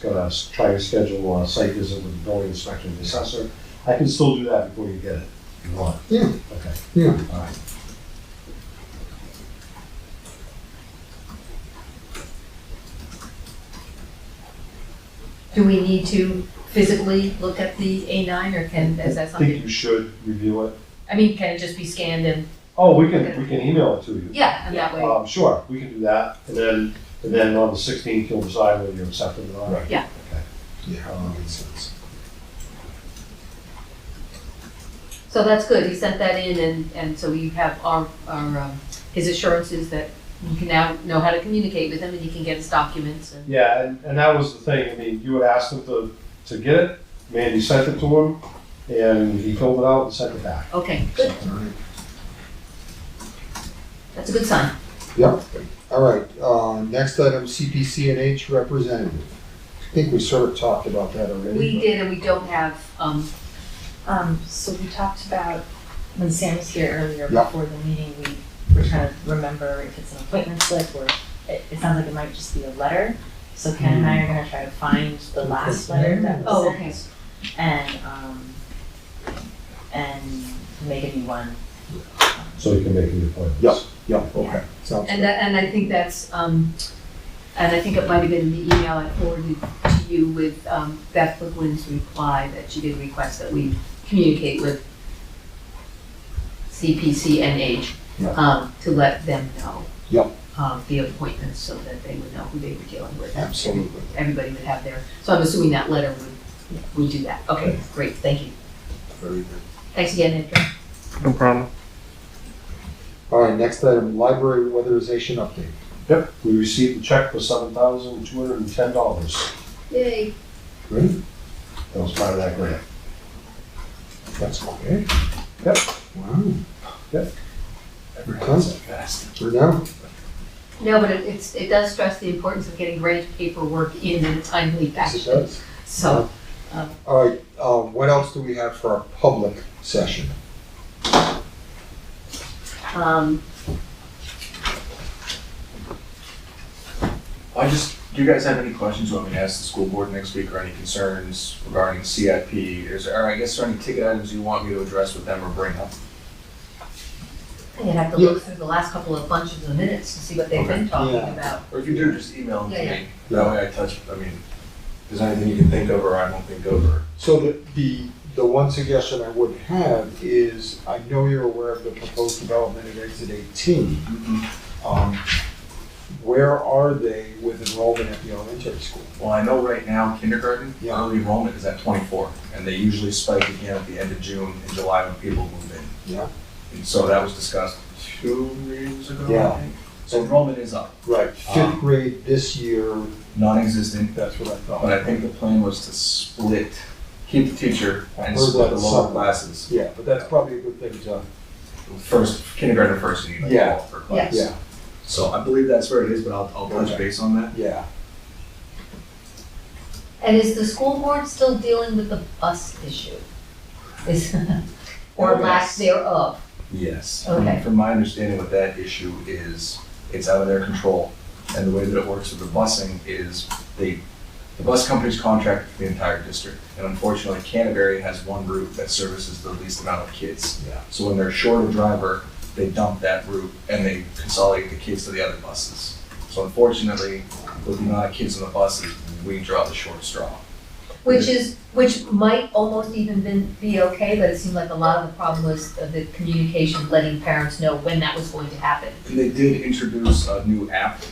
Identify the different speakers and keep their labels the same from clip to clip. Speaker 1: gonna s- try to schedule a site visit with the building inspector and the assessor. I can still do that before you get it, if you want.
Speaker 2: Yeah.
Speaker 1: Okay.
Speaker 2: Yeah.
Speaker 1: All right.
Speaker 3: Do we need to physically look at the A nine or can, is that
Speaker 1: I think
Speaker 3: something?
Speaker 1: you should review it.
Speaker 3: I mean, can it just be scanned and,
Speaker 1: Oh, we can, we can email it to you.
Speaker 3: yeah, and that way,
Speaker 1: Um, sure, we can do that, and then, and then on the sixteenth, you'll decide whether you accept it or not.
Speaker 2: Right.
Speaker 3: Yeah.
Speaker 1: Okay.
Speaker 2: Yeah, that makes sense.
Speaker 3: so that's good, he sent that in and, and so we have our, our, um, his assurances that you can now know how to communicate with him and you can get his documents and,
Speaker 1: Yeah, and, and that was the thing, I mean, you had asked him to, to get it, Mandy sent it to him, and he filled it out and sent it back.
Speaker 3: okay, good,
Speaker 2: All right.
Speaker 3: that's a good sign.
Speaker 2: Yep, all right, uh, next item, CPC and H representative. I think we sort of talked about that already.
Speaker 3: We
Speaker 2: but-
Speaker 3: did and we don't have, um,
Speaker 4: Um, so we talked about, when Sam was here earlier,
Speaker 2: Yeah.
Speaker 4: before the meeting, we were trying to remember if it's an appointment slip or it, it sounds like it might just be a letter. So Ken and I are gonna try to find the last letter that
Speaker 3: Oh,
Speaker 4: was
Speaker 3: okay.
Speaker 4: sent and, um, and make a new one. Um,
Speaker 1: So you can make the appointments.
Speaker 2: Yep. Yeah, okay, sounds
Speaker 3: And
Speaker 2: good.
Speaker 3: that, and I think that's, um, and I think it might have been in the email I forwarded to you with, um, Beth McGuinn's reply that she did request that we communicate with CPCNH,
Speaker 2: Yeah.
Speaker 3: um, to let them know.
Speaker 2: Yep.
Speaker 3: Um, the appointments so that they would know who they were dealing with.
Speaker 2: Absolutely.
Speaker 3: Everybody would have their, so I'm assuming that letter would, would do that. Okay, great, thank you.
Speaker 2: Very good.
Speaker 3: Thanks again, Andrew.
Speaker 5: No problem.
Speaker 2: All right, next item, library weatherization update.
Speaker 1: Yep, we received a check for seven thousand two hundred and ten dollars,
Speaker 3: Yay.
Speaker 2: Good,
Speaker 1: that was part of that grant.
Speaker 2: that's okay.
Speaker 1: Yep.
Speaker 2: Wow.
Speaker 1: Yep.
Speaker 2: We're done,
Speaker 1: Fast.
Speaker 2: we're done.
Speaker 3: No, but it, it's, it does stress the importance of getting grant paperwork in in a timely
Speaker 2: Yes, it
Speaker 3: fashion.
Speaker 2: does.
Speaker 3: So,
Speaker 2: All right, uh, what else do we have for our public session?
Speaker 3: um,
Speaker 6: I just, do you guys have any questions you want me to ask the school board next week or any concerns regarding CIP? Is, or I guess, are any ticket items you want me to address with them or bring up?
Speaker 3: I'd have to look through the last couple of bunches of minutes to see what they've been talking
Speaker 2: Yeah.
Speaker 3: about.
Speaker 6: Or if you do, just email them to
Speaker 3: Yeah,
Speaker 6: me. That way I touch, I mean, if there's anything you can think of or I won't think of or.
Speaker 2: So the, the, the one suggestion I would have is, I know you're aware of the proposed development at exit eighteen. Um, Where are they with enrollment at the elementary school?
Speaker 6: Well, I know right now kindergarten,
Speaker 2: Yeah.
Speaker 6: early enrollment is at twenty-four and they usually spike again at the end of June and July when people move in.
Speaker 2: Yeah.
Speaker 6: And so that was discussed two years ago,
Speaker 2: Yeah.
Speaker 6: I think. So enrollment is up,
Speaker 2: Right.
Speaker 6: Um,
Speaker 2: Fifth grade this year,
Speaker 6: non-existent,
Speaker 2: that's what I
Speaker 6: But
Speaker 2: thought.
Speaker 6: I think the plan was to split, keep the teacher and
Speaker 2: Or
Speaker 6: split the
Speaker 2: the
Speaker 6: lower
Speaker 2: sub.
Speaker 6: classes.
Speaker 2: Yeah, but that's probably a good thing to,
Speaker 6: First, kindergarten first, and you like
Speaker 2: Yeah.
Speaker 6: all for class.
Speaker 2: Yeah. Yeah.
Speaker 6: So I believe that's where it is, but I'll, I'll touch base on that.
Speaker 2: yeah.
Speaker 3: And is the school board still dealing with the bus issue? Is, or
Speaker 6: Oh,
Speaker 3: lack
Speaker 6: yes.
Speaker 3: thereof?
Speaker 6: Yes.
Speaker 3: Okay.
Speaker 6: From my understanding with that issue is, it's out of their control. And the way that it works with the busing is they, the bus companies contract with the entire district. And unfortunately, Canterbury has one route that services the least amount of kids.
Speaker 2: Yeah.
Speaker 6: So when they're short a driver, they dump that route and they consolidate the kids to the other buses. So unfortunately, with the amount of kids on the buses, we draw the short straw.
Speaker 3: Which is, which might almost even been, be okay, but it seemed like a lot of the problem was the- the communication, letting parents know when that was going to happen.
Speaker 6: And they did introduce a new app,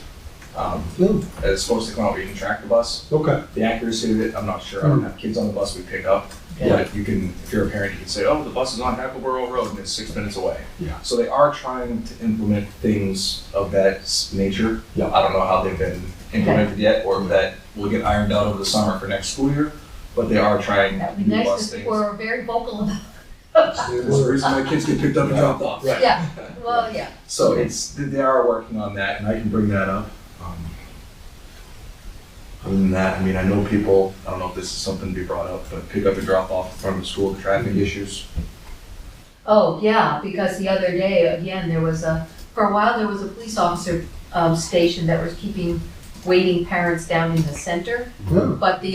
Speaker 6: um,
Speaker 2: No,
Speaker 6: that's supposed to come out where you can track the bus.
Speaker 2: Hmm. Okay,
Speaker 6: The accuracy of it, I'm not sure. I don't have kids on the bus we pick up.
Speaker 2: Yeah.
Speaker 6: But you can, if you're a parent, you can say, oh, the bus is on Hackleboro Road and it's six minutes away.
Speaker 2: Yeah.
Speaker 6: So they are trying to implement things of that s- nature.
Speaker 2: Yeah.
Speaker 6: I don't know how they've been implemented yet or if that will get ironed out over the summer for next school year, but they are trying
Speaker 3: That would be
Speaker 6: new
Speaker 3: nice,
Speaker 6: bus
Speaker 3: because
Speaker 6: things.
Speaker 3: people are very vocal about,
Speaker 6: There's a reason why kids get picked up and dropped off.
Speaker 2: Right.
Speaker 3: yeah, well, yeah.
Speaker 6: So it's, they are working on that and I can bring that up. Um, Other than that, I mean, I know people, I don't know if this is something to be brought up, but pick up and drop off in front of the school, the traffic issues.
Speaker 3: Oh, yeah, because the other day, again, there was a, for a while, there was a police officer um, station that was keeping waiting parents down in the center,
Speaker 2: Yeah.
Speaker 3: but the